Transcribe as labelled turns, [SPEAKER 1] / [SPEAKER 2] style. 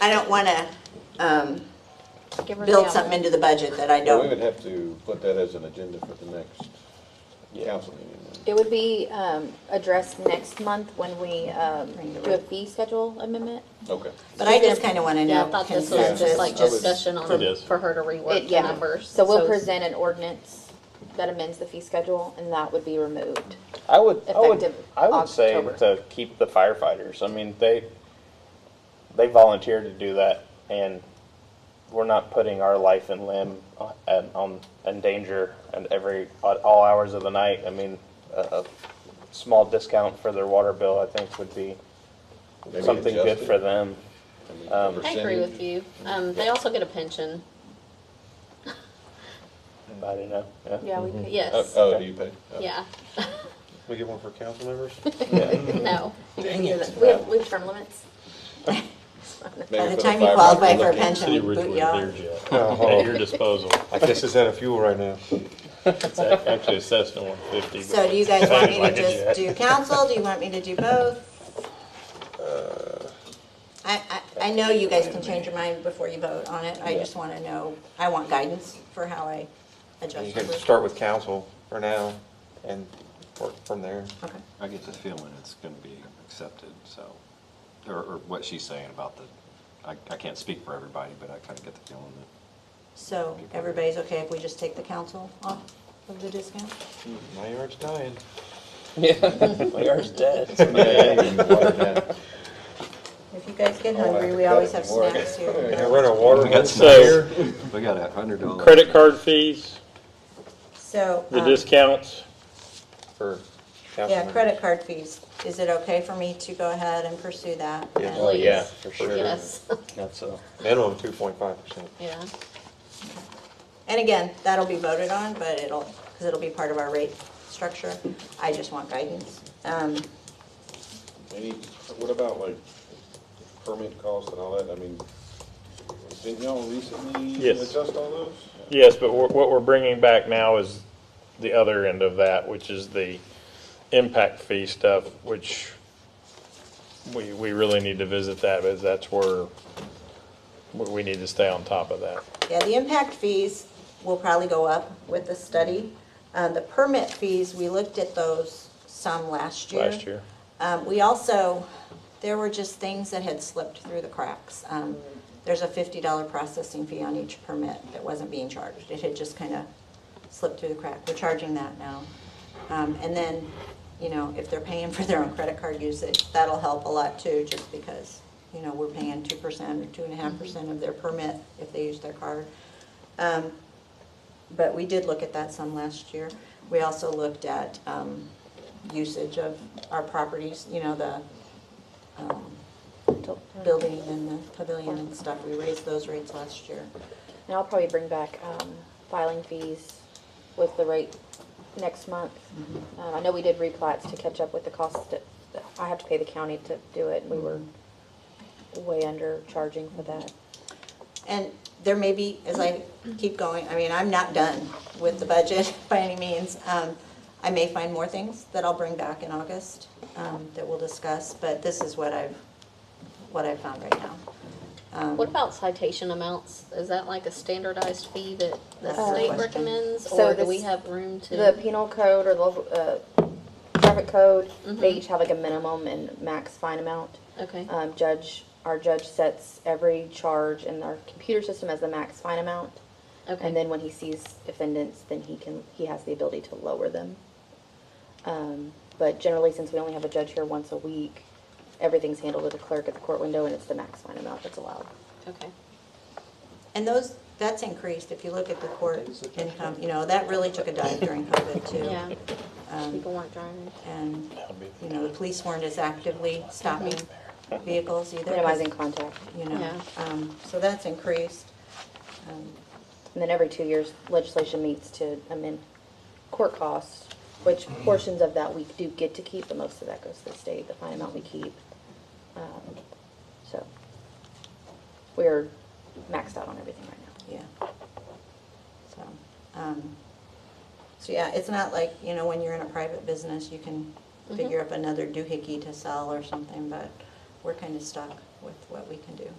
[SPEAKER 1] I don't want to
[SPEAKER 2] Give
[SPEAKER 3] um,
[SPEAKER 2] her the
[SPEAKER 1] build
[SPEAKER 2] outline.
[SPEAKER 1] something into the budget that I
[SPEAKER 4] Well, We
[SPEAKER 1] don't.
[SPEAKER 4] would have to put that as an agenda for the next council meeting. then.
[SPEAKER 2] It would be um, addressed next month when we um, do a fee schedule amendment.
[SPEAKER 4] Okay.
[SPEAKER 1] But I just kind of want to
[SPEAKER 3] Yeah, I
[SPEAKER 1] know
[SPEAKER 3] thought this was just like
[SPEAKER 1] consensus.
[SPEAKER 4] I would-
[SPEAKER 3] discussion on,
[SPEAKER 5] It is.
[SPEAKER 3] for her to
[SPEAKER 2] It-
[SPEAKER 3] rework the
[SPEAKER 2] yeah.
[SPEAKER 3] numbers.
[SPEAKER 2] So we'll
[SPEAKER 3] it's-
[SPEAKER 2] present an ordinance that amends the fee schedule, and that would be removed.
[SPEAKER 6] I would, I would,
[SPEAKER 2] Effective
[SPEAKER 6] I would say
[SPEAKER 2] October.
[SPEAKER 6] to keep the firefighters. I mean, they, they volunteered to do that, and we're not putting our life and limb on- and on in danger and every at all hours of the night. I mean, a, a small discount for their water bill, I think, would be
[SPEAKER 4] Maybe
[SPEAKER 6] something good
[SPEAKER 4] adjust it.
[SPEAKER 6] for them.
[SPEAKER 4] I mean,
[SPEAKER 6] Um,
[SPEAKER 3] I agree
[SPEAKER 4] percentage.
[SPEAKER 3] with you. Um, they also get a pension,
[SPEAKER 6] I don't know. Yeah.
[SPEAKER 2] Yeah, we could.
[SPEAKER 4] Oh,
[SPEAKER 3] yes,
[SPEAKER 4] oh, do you pay? Oh.
[SPEAKER 3] yeah,
[SPEAKER 7] We get one for council members?
[SPEAKER 3] no.
[SPEAKER 2] We have, we have term limits.
[SPEAKER 4] Maybe
[SPEAKER 1] By
[SPEAKER 4] for
[SPEAKER 1] the time you
[SPEAKER 4] firefighter,
[SPEAKER 1] qualify for a
[SPEAKER 4] looking-
[SPEAKER 1] pension,
[SPEAKER 5] City
[SPEAKER 1] we
[SPEAKER 5] of
[SPEAKER 1] boot
[SPEAKER 5] Ridgewood,
[SPEAKER 1] you off.
[SPEAKER 5] there's you. At your disposal.
[SPEAKER 7] I guess it's out of fuel right now.
[SPEAKER 5] It's a- actually assessed at one fifty.
[SPEAKER 1] So do you guys want me to just do council? Do you want me to do both? I, I, I know you guys can change your mind before you vote on it. I just want to know, I want guidance for how I
[SPEAKER 7] You
[SPEAKER 1] adjust.
[SPEAKER 7] can
[SPEAKER 1] it.
[SPEAKER 7] start with council for now and work from there.
[SPEAKER 1] Okay.
[SPEAKER 8] I get the feeling it's going to be accepted, so, or, or what she's saying about the, I, I can't speak for everybody, but I kind of get the feeling that.
[SPEAKER 1] So everybody's okay if we just take the council off of the discount?
[SPEAKER 7] My yard's dying.
[SPEAKER 6] My yard's dead.
[SPEAKER 4] Yeah, you can water down.
[SPEAKER 1] If you guys get
[SPEAKER 4] Oh, I
[SPEAKER 1] hungry, we
[SPEAKER 4] forgot
[SPEAKER 1] always
[SPEAKER 4] it
[SPEAKER 1] have
[SPEAKER 4] before.
[SPEAKER 1] snacks
[SPEAKER 7] I
[SPEAKER 1] here.
[SPEAKER 7] can run a water
[SPEAKER 8] We got
[SPEAKER 7] hose.
[SPEAKER 8] some-
[SPEAKER 5] So
[SPEAKER 8] We got a hundred dollars.
[SPEAKER 5] credit card fees,
[SPEAKER 1] So,
[SPEAKER 5] the
[SPEAKER 1] um,
[SPEAKER 5] discounts,
[SPEAKER 7] for council
[SPEAKER 1] yeah,
[SPEAKER 7] members.
[SPEAKER 1] credit card fees. Is it okay for me to go ahead and pursue that?
[SPEAKER 7] Yeah.
[SPEAKER 3] Please.
[SPEAKER 6] yeah, for sure.
[SPEAKER 3] Yes,
[SPEAKER 6] That's a.
[SPEAKER 7] Minimum two point five percent.
[SPEAKER 3] yeah.
[SPEAKER 1] And again, that'll be voted on, but it'll, because it'll be part of our rate structure. I just want guidance. Um,
[SPEAKER 4] Any, what about like permit costs and all that? I mean, didn't y'all recently
[SPEAKER 5] Yes.
[SPEAKER 4] adjust all those?
[SPEAKER 5] yes, but what what we're bringing back now is the other end of that, which is the impact fee stuff, which we, we really need to visit that, because that's where, we we need to stay on top of that.
[SPEAKER 1] Yeah, the impact fees will probably go up with the study. Uh, The permit fees, we looked at those some last year.
[SPEAKER 5] Last year.
[SPEAKER 1] Um, We also, there were just things that had slipped through the cracks. Um, There's a $50 processing fee on each permit that wasn't being charged. It had just kind of slipped through the crack. We're charging that now. Um, And then, you know, if they're paying for their own credit card usage, that'll help a lot too, just because, you know, we're paying 2% or 2.5% of their permit if they use their card. Um, But we did look at that some last year. We also looked at um, usage of our properties, you know, the um, building and the pavilion and stuff. We raised those rates last year.
[SPEAKER 2] And I'll probably bring back um, filing fees with the rate next month. Um, I know we did replats to catch up with the cost that that I have to pay the county to do it. We were way under charging for that.
[SPEAKER 1] And there may be, as I keep going, I mean, I'm not done with the budget by any means. Um, I may find more things that I'll bring back in August um, that we'll discuss, but this is what I've, what I've found right now. Um,
[SPEAKER 3] What about citation amounts? Is that like a standardized fee that the
[SPEAKER 1] That's a
[SPEAKER 3] state
[SPEAKER 1] question.
[SPEAKER 3] recommends,
[SPEAKER 2] So
[SPEAKER 3] or do we
[SPEAKER 2] this-
[SPEAKER 3] have room to?
[SPEAKER 2] The penal code or the uh, traffic code, they each have like a minimum and max fine amount.
[SPEAKER 3] Mm-hmm. Okay,
[SPEAKER 2] Um, Judge, our judge sets every charge in our computer system as the max fine amount.
[SPEAKER 3] okay.
[SPEAKER 2] And then when he sees defendants, then he can, he has the ability to lower them. Um, But generally, since we only have a judge here once a week, everything's handled with a clerk at the court window, and it's the max fine amount that's allowed.
[SPEAKER 3] Okay,
[SPEAKER 1] And those, that's increased, if you look at the court income, you know, that really took a dive during COVID too.
[SPEAKER 3] yeah,
[SPEAKER 1] Um,
[SPEAKER 3] people weren't driving.
[SPEAKER 1] And, you know, the police weren't as actively stopping vehicles either. 'cause,
[SPEAKER 2] Minimizing contact.
[SPEAKER 1] You know,
[SPEAKER 3] Yeah.
[SPEAKER 1] um, so that's increased. Um,
[SPEAKER 2] And then every two years, legislation meets to amend court costs, which portions of that we do get to keep, but most of that goes to the state, the fine amount we keep. Um, So we're maxed out on everything right now.
[SPEAKER 1] Yeah. So, um, so yeah, it's not like, you know, when you're in a private business, you can
[SPEAKER 3] Mm-hmm.
[SPEAKER 1] figure up another doohickey to sell or something, but we're kind of stuck with what we can do.